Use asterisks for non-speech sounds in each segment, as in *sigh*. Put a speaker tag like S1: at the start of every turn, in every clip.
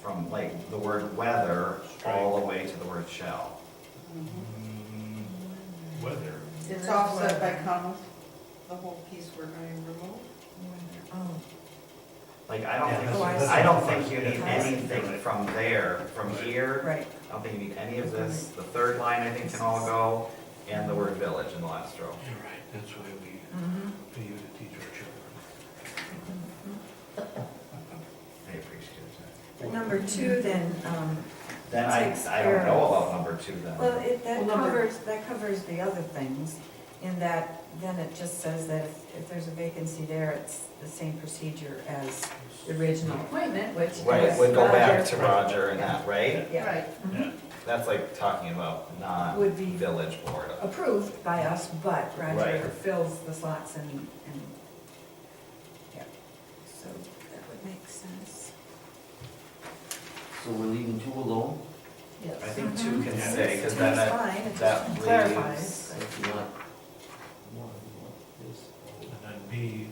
S1: from like the word whether all the way to the word shall.
S2: Mm,
S3: Mm-hmm.
S4: Weather.
S2: It's offset by commas, the whole piece we're going to remove.
S3: Oh,
S1: Like, I don't
S4: Yeah,
S1: think,
S4: that's-
S3: that's-
S1: I don't think you need
S3: that's-
S1: anything from there, from here.
S3: right,
S1: I don't think you need any of this. The third line, I think, can all go, and the word village in the last row.
S4: You're right, that's why we
S3: mhm.
S4: pay you to teach our children.
S1: I appreciate
S3: But number two then, um,
S1: it. Then I,
S3: Takes
S1: I don't
S3: care
S1: know
S3: of-
S1: about number two then.
S3: well, it, that
S2: Well, number-
S3: covers, that covers the other things, in that, then it just says that if, if there's a vacancy there, it's the same procedure as the original appointment, which is.
S1: Right, would go back to
S3: Roger.
S1: Roger and that, right?
S3: Yeah,
S4: Yeah.
S1: That's like talking about
S3: Would be-
S1: non-village board.
S3: approved by us, but
S1: Right.
S3: Roger fills the slots and, and, yeah. So that would make sense.
S5: So we're leaving two alone?
S3: Yes.
S1: I think two can
S4: Mhm.
S1: stay, because then
S3: That's
S1: that,
S3: fine, it
S1: that
S3: just
S1: leaves-
S3: clarifies.
S5: That's not. One, what, this,
S4: And then B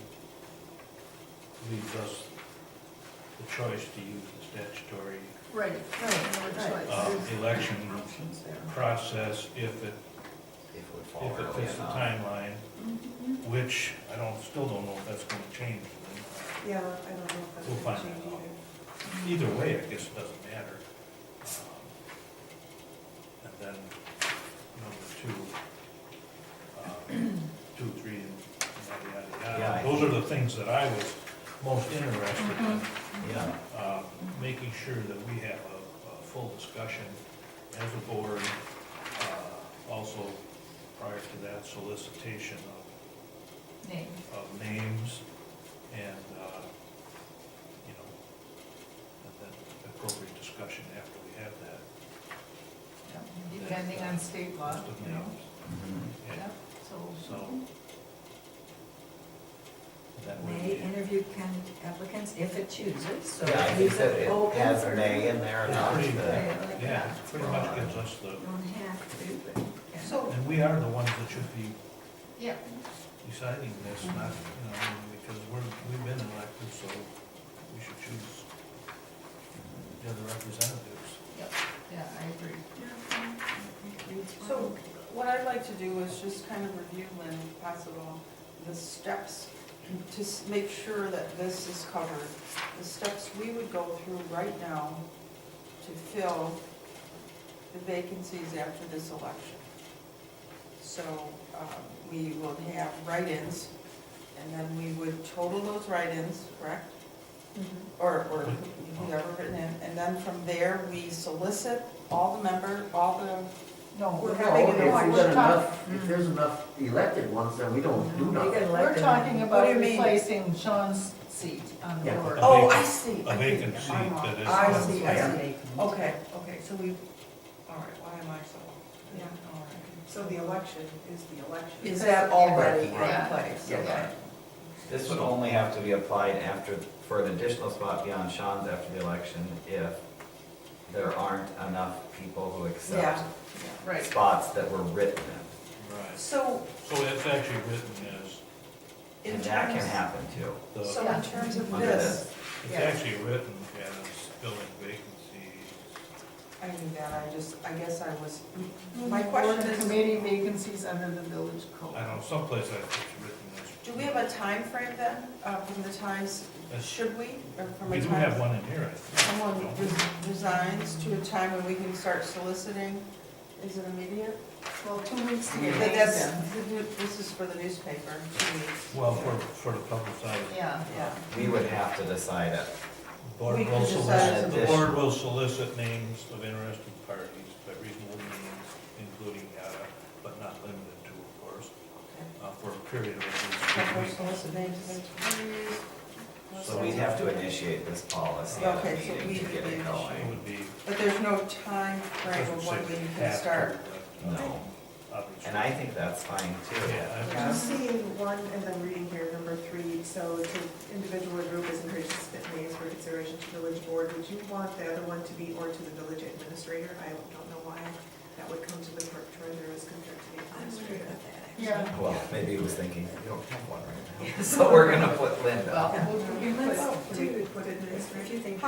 S4: leaves us the choice to use the statutory
S6: Right,
S3: Right, right.
S4: uh, election
S3: Options there.
S4: process if it,
S1: if it would fall
S4: if it
S1: early
S4: fits the
S1: enough.
S4: timeline,
S3: Mm-hmm.
S4: which I don't, still don't know if that's gonna change.
S2: Yeah, I don't know if that's
S4: We'll
S2: going
S4: find
S2: to change
S4: that out.
S2: either.
S4: Either way, I guess it doesn't matter. Um, And then number two, um, two, three, and yada, yada,
S1: Yeah, I
S4: yada. Those are the things that I was most interested in.
S1: Yeah,
S4: um, making sure that we have a, a full discussion as a board, uh, also prior to that solicitation
S6: Name.
S4: of, of names and, uh, you know, and then appropriate discussion after we have that.
S6: Depending on state law,
S4: list of
S6: you know.
S4: names.
S1: mhm.
S4: Yeah,
S6: Yep, so.
S4: so. That would
S3: May
S4: be,
S3: interview can- applicants if it chooses, so
S1: Yeah, I
S3: it
S1: think
S3: leaves
S1: that
S3: it
S1: it
S3: open
S1: has
S3: for-
S1: may in there enough
S4: Pretty
S1: that,
S3: Yeah, like
S4: yeah,
S3: that.
S4: pretty much gives us the,
S3: Don't have to, but. yeah.
S2: So,
S4: and we are the ones that should be
S6: Yeah,
S4: deciding this, not, you know, because we're, we've been elected, so we should choose the other representatives.
S6: yeah, I agree.
S2: so what I'd like to do is just kind of review when possible, the steps to s- make sure that this is covered. The steps we would go through right now to fill the vacancies after this election. So um, we will have write-ins, and then we would total those write-ins, correct? Or, or whoever written in, and then from there, we solicit all the member, all the,
S6: No,
S2: We're
S6: we're
S5: No,
S2: having
S6: having,
S2: an
S5: if
S2: election.
S5: there's
S6: we're talking,
S5: enough, if there's enough elected ones, then we don't do
S3: You get
S5: nothing.
S6: we're
S3: elected.
S6: talking
S2: What do
S6: about
S2: you mean?
S6: replacing Sean's seat on the
S5: Yeah.
S6: board.
S2: oh, I see.
S4: A vacant seat
S2: I'm wrong.
S4: that is.
S2: I see, I see.
S3: see.
S2: Okay, okay, so we, all right, why am I so, yeah, all right.
S7: So the election is the election.
S2: Is that already in
S4: Right.
S2: place?
S5: Yeah.
S2: Okay.
S1: this would only have to be applied after, for an additional spot beyond Sean's after the election if there aren't enough people who accept
S2: Yeah.
S6: Right,
S1: spots that were written in.
S4: Right,
S2: So
S4: so it's actually written as,
S2: in
S1: And that can
S2: terms,
S1: happen too.
S4: the,
S2: so in terms of
S1: Under
S2: this,
S1: this,
S4: it's actually written as filling vacancies.
S2: I knew that, I just, I guess I was,
S6: my
S2: my question
S6: question,
S2: is,
S6: committee vacancies under the village code.
S4: I don't know, someplace I think it's written as.
S2: do we have a time frame then, uh, from the times,
S4: That's-
S2: should we, or from
S4: We
S2: a
S4: do
S2: time?
S4: have one in here, I think.
S2: Someone
S4: don't we?
S2: res- resigns to a time when we can start soliciting, is it immediate?
S6: Well, two weeks to get
S2: But
S6: names
S2: that's,
S6: in.
S2: this is for the newspaper, two weeks.
S4: Well, for, for the publicized.
S6: Yeah,
S2: Yeah.
S1: We would have to decide it.
S4: Board
S2: We
S4: will
S2: can decide
S4: solicit,
S1: as
S4: the
S1: a
S4: board will solicit names of interested parties by reasonable means, including yada, but not limited to, of course, uh, for a period of at
S2: Temporary
S4: least two weeks.
S2: solicit names and attorneys.
S1: So we'd have to initiate this policy at a
S2: Okay, so
S1: meeting
S2: we
S1: to
S2: would
S1: get
S2: be
S1: it
S4: It
S1: going.
S4: would be,
S2: But there's no time frame
S4: doesn't
S2: of
S4: say
S2: when
S4: we
S2: we can
S4: have
S2: start.
S4: to, but, uh,
S1: No.
S4: obviously.
S1: And I think that's fine too.
S4: Yeah, I-
S7: I'm seeing one, and I'm reading here, number three, so to individual or group is encouraged to submit names for consideration to village board. Would you want the other one to be or to the village administrator? I don't know why that would come to the clerk treasurer as compared to the
S3: I'm sorry
S7: administrator.
S3: about that, actually.
S6: yeah,
S1: Well, maybe he was thinking, you don't have
S2: *laughs*
S1: one right now. So we're gonna put Linda.
S6: well, we'll-
S3: Let's do,
S7: Put it in
S3: if you think.